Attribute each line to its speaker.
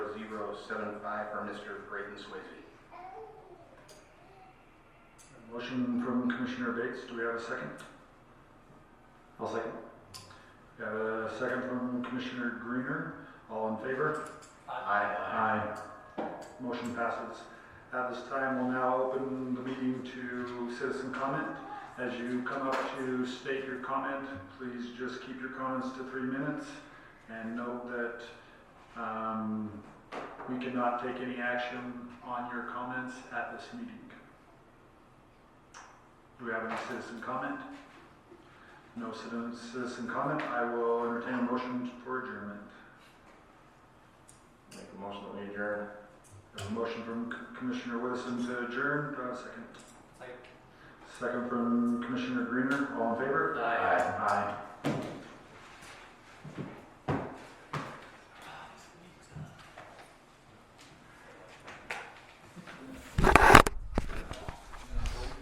Speaker 1: 075 for Mr. Brayton Swayze.
Speaker 2: Motion from Commissioner Bates, do we have a second? I'll second. Got a second from Commissioner Greener, all in favor?
Speaker 1: Aye.
Speaker 2: Aye. Motion passes. At this time, we'll now open the meeting to citizen comment. As you come up to state your comment, please just keep your comments to three minutes. And note that um, we cannot take any action on your comments at this meeting. Do we have any citizen comment? No citizen citizen comment. I will entertain a motion for adjournment.
Speaker 1: Make a motion that we adjourn.
Speaker 2: A motion from C- Commissioner Wilson to adjourn, do I have a second?
Speaker 3: Second.
Speaker 2: Second from Commissioner Greener, all in favor?
Speaker 3: Aye.
Speaker 2: Aye.